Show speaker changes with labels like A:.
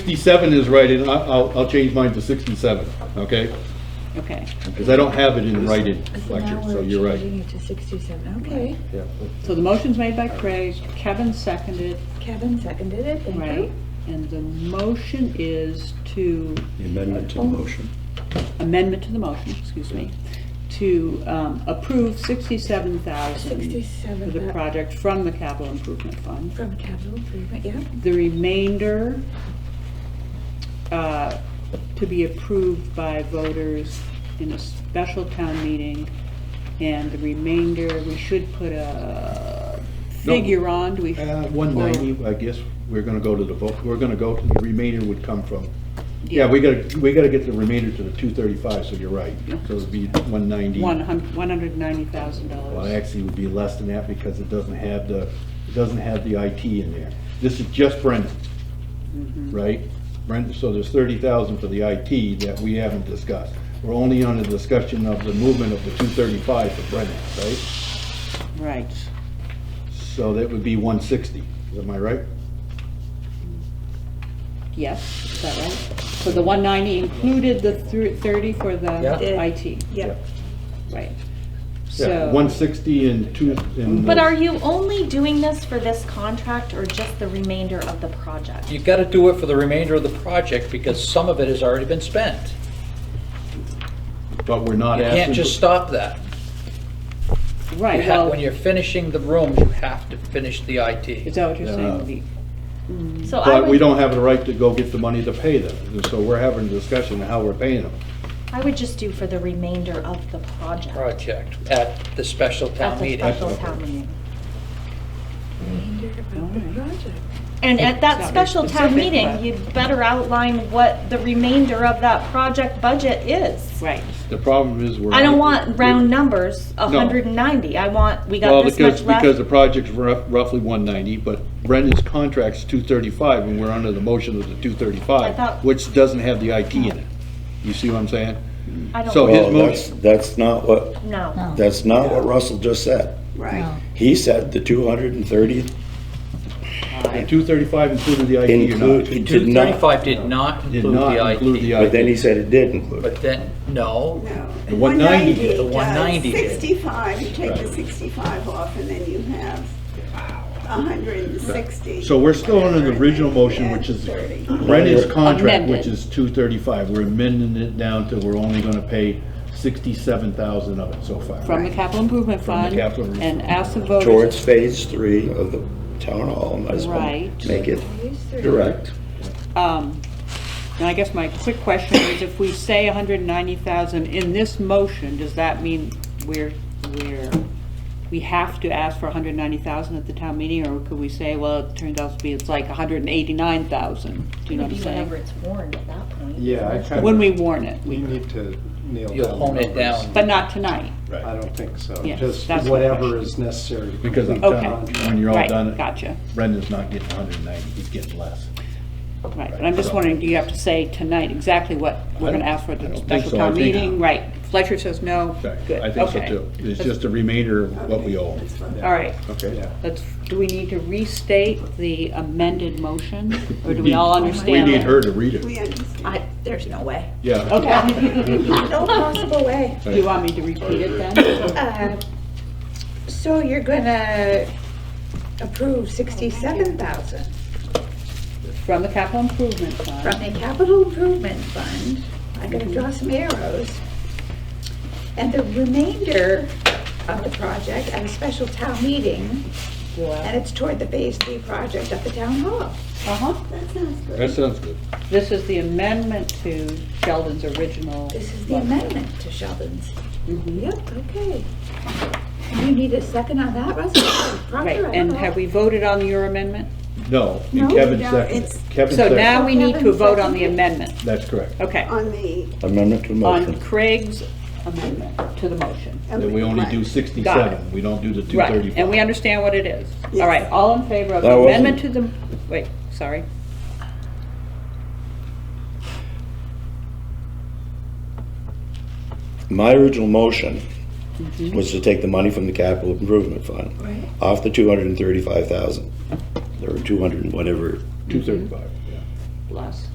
A: 67 is right, and I- I'll, I'll change mine to 67, okay?
B: Okay.
A: Because I don't have it in writing, Fletcher, so you're
C: Now
A: right.
C: we're changing it to 67, okay.
A: Yeah.
B: So the motion's made by Craig, Kevin seconded,
C: Kevin seconded it, thank
B: right?
C: you.
B: And the motion is to,
D: The amendment to the motion.
B: amendment to the motion, excuse me, to um, approve sixty-seven thousand for the
C: 67
B: project from the capital improvement fund.
C: from capital improvement, yeah.
B: The remainder uh, to be approved by voters in a special town meeting. And the remainder, we should put a figure on, do we?
A: Uh, 190, I guess, we're gonna go to the vote, we're gonna go, to the remainder would come from, yeah, we gotta, we gotta get the remainder to the 235, so you're right. So it'd be 190.
B: One hun, one hundred ninety thousand
A: Well,
B: dollars.
A: actually, it would be less than that because it doesn't have the, it doesn't have the IT in there. This is just Brendan,
E: Mm-hmm.
A: right? Brendan, so there's thirty thousand for the IT that we haven't discussed. We're only on the discussion of the movement of the two thirty-five for Brendan, right?
B: Right.
A: So that would be one sixty, am I right?
B: Yes, is that right? So the one ninety included the thir- thirty for the
C: Yeah.
B: IT,
C: Yep.
B: right?
A: Yeah,
B: So.
A: one sixty and two, and.
E: But are you only doing this for this contract or just the remainder of the project?
F: You've got to do it for the remainder of the project because some of it has already been spent.
A: But we're not
F: You
A: asking.
F: can't just stop that. You
B: Right,
F: have-
B: well,
F: When you're finishing the rooms, you have to finish the
B: is
F: IT.
B: that what you're
A: No.
B: saying? The-
A: Uh,
B: Mm.
E: So I
A: But we
E: would,
A: don't have the right to go get the money to pay them, so we're having a discussion of how we're paying them.
E: I would just do for the remainder of the project.
F: Project at the special
E: At
F: town
E: the
F: meeting.
E: special town meeting.
C: Remainder of the
B: Alright.
C: project.
E: And at
B: It's
E: that
B: not very
E: special town
B: specific,
E: meeting,
B: but-
E: you'd better outline what the remainder of that project budget is.
B: Right,
A: The problem is we're.
E: I don't want round numbers, hundred and ninety. I want, we
A: Well,
E: got this
A: because,
E: much left.
A: because the project's rough- roughly 190, but Brendan's contract's 235, and we're under the motion of the
E: I
A: 235,
E: thought-
A: which doesn't have the IT in it. You see what I'm saying?
E: I don't-
A: so his
D: Well,
A: motion-
D: that's, that's not what,
E: No,
D: that's not what Russell just said.
B: right.
D: He said the 230
A: The 235 included the IT or
D: include,
A: not?
D: it did not,
F: 235 did not
A: Did
F: include
A: not include the
F: the IT.
D: but then he
A: IT.
D: said it did include. it.
F: But then, no,
A: The 190 did.
F: The 190 did.
G: 65, uh, you take the 65 off, and then you have 160.
A: So we're still under the original motion,
G: Yeah,
A: which is
G: 30.
A: Brendan's contract,
B: Amended.
A: which is 235. We're amending it down to we're only going to pay 67,000 of it so far.
B: From the capital improvement
A: From the
B: fund
A: capital
B: and
A: improvement
B: ask the voters.
D: Towards phase three of the town hall, might as well
B: Right.
D: make it
C: Phase three.
D: direct.
B: Um, And I guess my quick question is, if we say 190,000 in this motion, does that mean we're, we're, we have to ask for 190,000 at the town meeting? Or could we say, well, it turns out to be, it's like 189,000? Do you know what I'm
E: Maybe whenever
B: saying?
E: it's warned at that point.
H: Yeah, I kind of.
B: When we warn it,
H: We
B: we-
H: need to nail down.
F: you'll hone
H: the
F: it
H: numbers.
F: down.
B: but not tonight.
H: I don't think so.
B: Yes,
H: Just
B: that's my
H: whatever
B: question.
H: is necessary. to
A: Because I'm
H: complete the
A: done,
H: contract.
A: when you're all
B: Right,
A: done,
B: Gotcha,
A: Brendan's not getting 190, he's getting less.
B: right. But I'm just wondering, do you have to say tonight exactly what we're going to ask for at
A: I
B: the
A: don't think
B: special
A: so. I
B: town
A: think-
B: meeting? Right. Fletcher says no.
A: Right,
B: Good,
A: I think so
B: okay.
A: too. It's just a remainder of what we owe.
G: That's fine.
B: All right.
A: Okay.
H: Yeah.
B: Let's, do we need to restate the amended motion, or do we all
A: We
B: understand?
A: need
B: it?
A: her to read it.
G: We understand.
E: I, there's no way.
A: Yeah.
B: Okay.
C: No possible way.
B: Do you want me to repeat it then?
C: Uh, So you're gonna approve 67,000
B: From the capital improvement
C: from
B: fund,
C: the capital improvement fund. I'm gonna draw some arrows. And the remainder of the project at a special town meeting, and it's toward the phase three project at the town hall.
B: uh-huh,
G: That sounds good.
A: That sounds good.
B: this is the amendment to Sheldon's original.
C: This is the
B: motion.
C: amendment to Sheldon's.
B: Mm-hmm.
C: Yep, okay. And you need a second on that, Russell?
B: Right,
C: Proctor, I don't
B: and
C: know.
B: have we voted on your amendment?
A: No,
G: No,
A: and Kevin
G: no,
A: seconded.
G: it's-
A: Kevin
B: So now
A: seconded.
B: we need to vote on the amendment,
A: That's correct.
B: okay,
G: On the.
D: Amendment to motion.
B: on Craig's amendment to the motion.
A: Then we only do
B: Got it.
A: 67, we don't do the
B: Right, and we
A: 235.
B: understand what it is. All
G: Yes.
B: right, all in favor of
D: That
B: amendment to the, wait, sorry.
D: My original motion was to take the money from the capital improvement fund off the 235,000. There were 200 and whatever,
A: 235, yeah.
B: plus.